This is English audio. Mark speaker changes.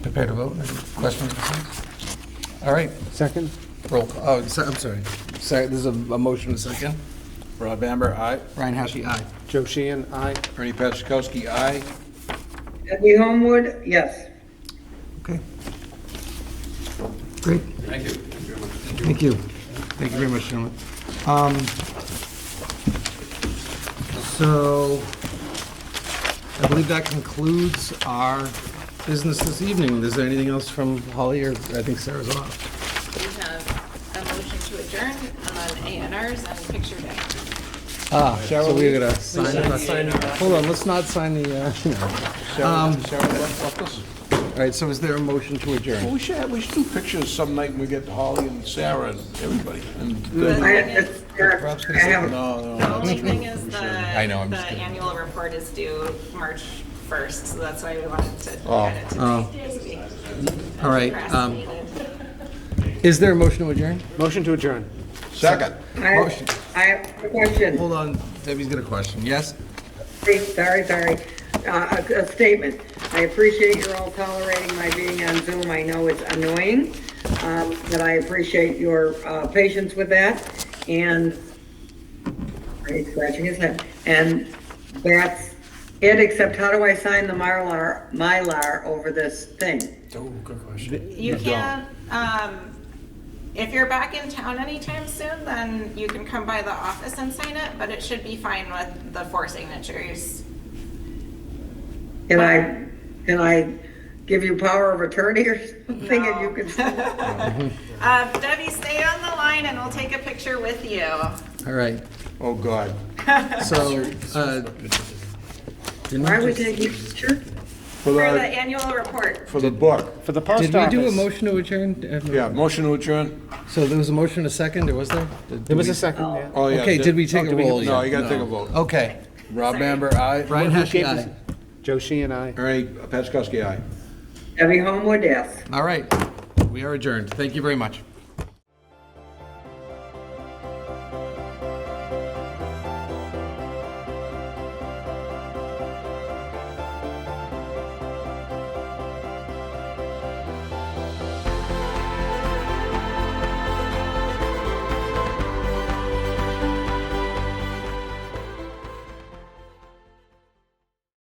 Speaker 1: prepare to vote? Any questions? or concerns? All right,
Speaker 2: Second?
Speaker 1: roll, call. oh, se- I'm sorry. Sorry, this is a a motion, a second.
Speaker 3: Rod Bamber, aye.
Speaker 1: Ryan Hashi, aye.
Speaker 2: Joe Sheehan, aye.
Speaker 3: Ernie Petchakowski, aye.
Speaker 4: Debbie Homewood, yes.
Speaker 1: Okay. Great. Thank you. Thank you very much, gentlemen. Um, So I believe that concludes our business this evening. Is there anything else from Holly or I think Sarah's off?
Speaker 5: We have a motion to adjourn on A and Rs and picture day.
Speaker 1: Ah, so we're gonna sign it. Hold on, let's not sign the, uh, you know.
Speaker 3: Sarah, Sarah left left us.
Speaker 1: all right, so is there a motion to adjourn?
Speaker 3: We should, have- we should do pictures some night when we get Holly and Sarah and everybody. And uh,
Speaker 4: I I have,
Speaker 3: No, no.
Speaker 5: The only thing is the, the
Speaker 1: know, I'm just kidding.
Speaker 5: annual report is due March 1st, so that's why we wanted to get it
Speaker 1: Oh.
Speaker 5: to this week.
Speaker 1: All right, um,
Speaker 5: Procrastinated.
Speaker 1: is there a motion to adjourn?
Speaker 2: Motion to adjourn.
Speaker 3: Second.
Speaker 4: I have, I have a question.
Speaker 1: Hold on, Debbie's got a question. Yes?
Speaker 4: Hey, Sorry, sorry. Uh, A a statement. I appreciate you're all tolerating my being on Zoom. I know it's annoying, um, but I appreciate your uh, patience with that. And he's scratching his head. And that's it, except how do I sign the Mylar, Mylar over this thing?
Speaker 5: You can, um, if you're back in town anytime soon, then you can come by the office and sign it, but it should be fine with the four signatures.
Speaker 4: Can I, can I give you power of attorney or something and you can?
Speaker 5: Uh, Debbie, stay on the line and we'll take a picture with you.
Speaker 1: All right,
Speaker 3: Oh, God.
Speaker 1: so, uh, didn't
Speaker 4: Why
Speaker 1: we
Speaker 4: would
Speaker 1: just-
Speaker 4: they give you sure?
Speaker 3: For
Speaker 5: For the
Speaker 3: the,
Speaker 5: annual report.
Speaker 3: for the book.
Speaker 2: For the post
Speaker 1: did we
Speaker 2: office.
Speaker 1: do a motion to adjourn?
Speaker 3: Yeah, motion to adjourn.
Speaker 1: So there was a motion, and a second, or was there? Did-
Speaker 2: There was
Speaker 1: we-
Speaker 2: a second, yeah.
Speaker 3: Oh, yeah.
Speaker 1: Okay, did we take
Speaker 2: Oh,
Speaker 1: a
Speaker 2: did we-
Speaker 1: roll? Oh.
Speaker 3: No,
Speaker 1: yet?
Speaker 3: you gotta take a vote.
Speaker 1: Okay,
Speaker 3: Rob Bamber, aye.
Speaker 1: Brian Heskey,
Speaker 2: gave us-
Speaker 1: aye.
Speaker 2: Joe Sheehan, aye.
Speaker 3: Ernie Petchakowski, aye.
Speaker 4: Debbie Homewood, yes.
Speaker 1: All right, we are adjourned. Thank you very much.